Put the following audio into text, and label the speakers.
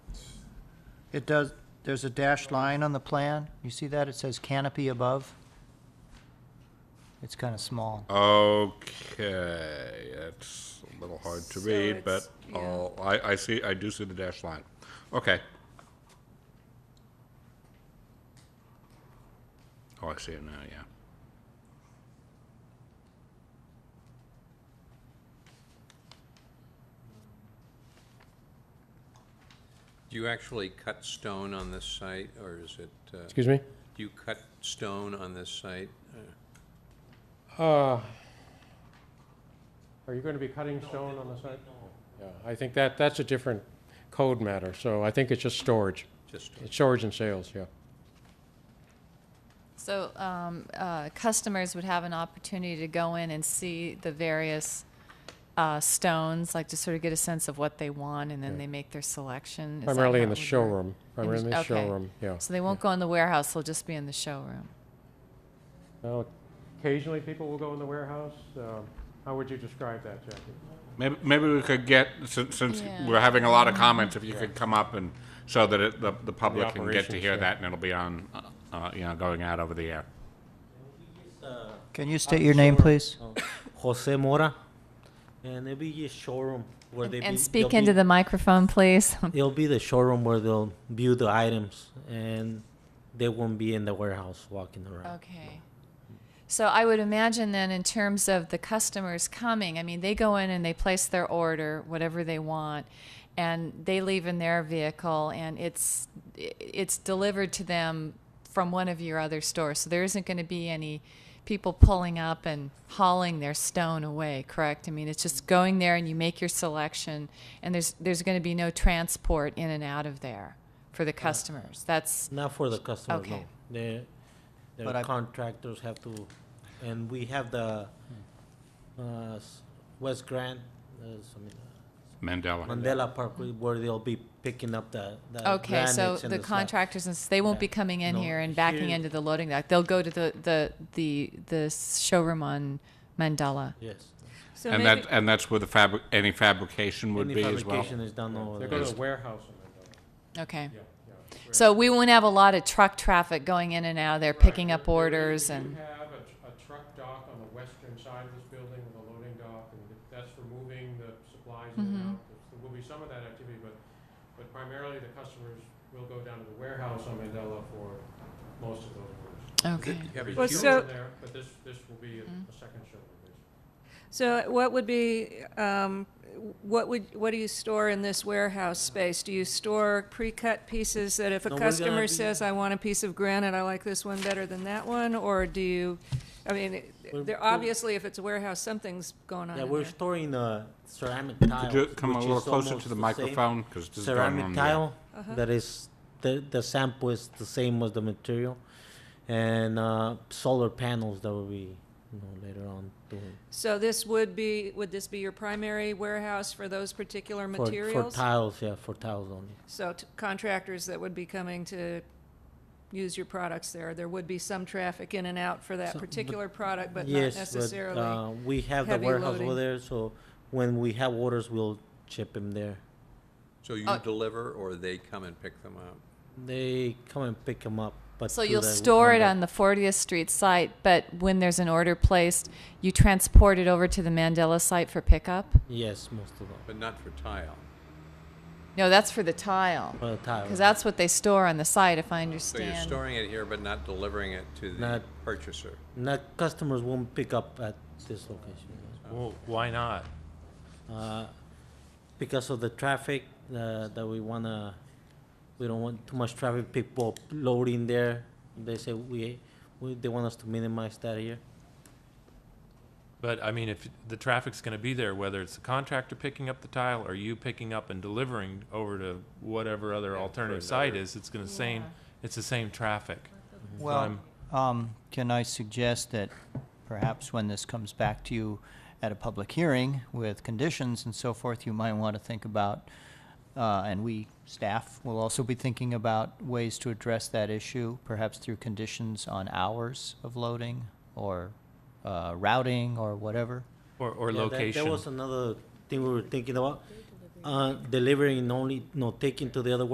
Speaker 1: It does, there's a dashed line on the plan. You see that? It says canopy above. It's kind of small.
Speaker 2: Okay, that's a little hard to
Speaker 3: So
Speaker 2: read, but
Speaker 3: it's-
Speaker 2: I'll- I, I see, I do see the dashed line. Okay. Oh, I see it now, yeah.
Speaker 4: Do you actually cut stone on this site, or is it, uh,
Speaker 5: Excuse me?
Speaker 4: do you cut stone on this site? Uh,
Speaker 5: Uh, Are you going to be cutting stone on the site? Yeah, I think that, that's a different code matter, so I think it's just storage.
Speaker 4: Just,
Speaker 5: It's storage and sales, yeah.
Speaker 3: So um, uh, customers would have an opportunity to go in and see the various uh, stones, like to sort of get a sense of what they want, and then
Speaker 5: Yeah.
Speaker 3: they make their selection. Is that
Speaker 5: Primarily
Speaker 3: how
Speaker 5: in the
Speaker 3: it would work?
Speaker 5: showroom,
Speaker 3: In the-
Speaker 5: primarily in the
Speaker 3: okay.
Speaker 5: showroom, yeah.
Speaker 3: So they won't go in the warehouse; they'll just be in the showroom.
Speaker 5: Now, Occasionally, people will go in the warehouse. Um, How would you describe that, Jackie?
Speaker 2: Maybe, maybe we could get, since, since
Speaker 3: Yeah.
Speaker 2: we're having a lot of comments, if you could come up and, so that it, the, the public can get to
Speaker 5: operations,
Speaker 2: hear
Speaker 5: yeah.
Speaker 2: that, and it'll be on, uh, you know, going out over the air.
Speaker 1: Can you state your name, please?
Speaker 6: Jose Mora, and it'll be a showroom where they
Speaker 3: and
Speaker 6: be,
Speaker 3: speak
Speaker 6: they'll
Speaker 3: into
Speaker 6: be,
Speaker 3: the microphone, please.
Speaker 6: It'll be the showroom where they'll view the items, and they won't be in the warehouse walking around.
Speaker 3: Okay. So I would imagine then, in terms of the customers coming, I mean, they go in and they place their order, whatever they want, and they leave in their vehicle, and it's i- it's delivered to them from one of your other stores. So there isn't going to be any people pulling up and hauling their stone away, correct? I mean, it's just going there and you make your selection, and there's there's going to be no transport in and out of there for the customers. That's
Speaker 6: Not for the customer,
Speaker 3: Okay.
Speaker 6: no. The,
Speaker 1: But
Speaker 6: the
Speaker 1: I-
Speaker 6: contractors have to, and we have the uh, s- West Grand, uh, s- I mean,
Speaker 2: Mandela.
Speaker 6: Mandela Park, where they'll be picking up the, the
Speaker 3: Okay, so
Speaker 6: granites and
Speaker 3: the
Speaker 6: slab.
Speaker 3: contractors, and s- they won't
Speaker 6: Yeah.
Speaker 3: be coming in
Speaker 6: No,
Speaker 3: here and backing
Speaker 6: here-
Speaker 3: into the loading dock. They'll go to the, the, the, the showroom on Mandela.
Speaker 6: Yes.
Speaker 7: So
Speaker 2: And
Speaker 7: maybe,
Speaker 2: that, and that's where the fabric, any fabrication would
Speaker 6: Any
Speaker 2: be as well.
Speaker 6: fabrication is done over
Speaker 5: They
Speaker 6: there.
Speaker 5: go to the warehouse and then go.
Speaker 3: Okay.
Speaker 5: Yeah, yeah.
Speaker 3: So we won't have a lot of truck traffic going in and out of there, picking up orders
Speaker 5: We
Speaker 3: and,
Speaker 5: have a, tr- a truck dock on the western side of this building with a loading dock, and th- that's for moving the supplies in and
Speaker 3: Mhm.
Speaker 5: out. There will be some of that activity, but, but primarily the customers will go down to the warehouse on Mandela for most of those orders.
Speaker 3: okay.
Speaker 4: You have a
Speaker 7: Well,
Speaker 5: Two
Speaker 4: huge-
Speaker 7: so-
Speaker 5: in there, But this, this will be a
Speaker 3: Mm-hmm.
Speaker 5: a second showroom, basically.
Speaker 7: so what would be, um, what would, what do you store in this warehouse space? Do you store pre-cut pieces that if a
Speaker 6: No, we're gonna
Speaker 7: customer
Speaker 6: be-
Speaker 7: says, I want a piece of granite, I like this one better than that one? Or do you, I mean, it-
Speaker 6: We're-
Speaker 7: there,
Speaker 6: we're-
Speaker 7: obviously, if it's a warehouse, something's going on
Speaker 6: Yeah,
Speaker 7: in
Speaker 6: we're
Speaker 7: there.
Speaker 6: storing uh, ceramic tile.
Speaker 2: Could you come a little closer to the microphone? 'Cause this is going on
Speaker 6: Ceramic
Speaker 2: the-
Speaker 6: tile, that is, the, the sample is the same as the material. And uh, solar panels that will be, you know, later on doing.
Speaker 7: So this would be, would this be your primary warehouse for those particular
Speaker 6: for-
Speaker 7: materials?
Speaker 6: For tiles, yeah, for tiles only.
Speaker 7: So t- contractors that would be coming to use your products there, there would be some traffic in and out for that
Speaker 6: So- but-
Speaker 7: particular product, but not
Speaker 6: Yes,
Speaker 7: necessarily.
Speaker 6: uh, We have the
Speaker 7: heavy
Speaker 6: warehouse over
Speaker 7: loading.
Speaker 6: there, so when we have orders, we'll ship them there.
Speaker 4: So you
Speaker 3: Uh,
Speaker 4: deliver, or they come and pick them up?
Speaker 6: They come and pick them up, but.
Speaker 3: So
Speaker 6: to
Speaker 3: you'll
Speaker 6: the
Speaker 3: store it
Speaker 6: window.
Speaker 3: on the 40th Street site, but when there's an order placed, you transport it over to the Mandela site for pickup?
Speaker 6: Yes, most of them,
Speaker 4: But not for tile.
Speaker 3: No, that's for the tile,
Speaker 6: for the tiles.
Speaker 3: because that's what they store on the site, if I
Speaker 4: So you're
Speaker 3: understand.
Speaker 4: storing it here, but not delivering it to the
Speaker 6: Not-
Speaker 4: purchaser?
Speaker 6: Not, customers won't pick up at this location.
Speaker 8: Well, why not?
Speaker 6: Uh, because of the traffic, uh, that we wanna, we don't want too much traffic, people loading there. They say we, we, they want us to minimize that here.
Speaker 8: But I mean, if the traffic's going to be there, whether it's the contractor picking up the tile or you picking up and delivering over to whatever other
Speaker 4: Yeah, for
Speaker 8: alternative site
Speaker 4: another-
Speaker 8: is, it's going to same. It's the same traffic.
Speaker 1: Well,
Speaker 8: I'm-
Speaker 1: um, can I suggest that perhaps when this comes back to you at a public hearing with conditions and so forth, you might want to think about, uh, and we, staff, will also be thinking about ways to address that issue, perhaps through conditions on hours of loading or, uh, routing or whatever.
Speaker 8: Or, or
Speaker 6: Yeah, that-
Speaker 8: location.
Speaker 6: That was another thing we were thinking about, uh, delivering only, no, taking to the other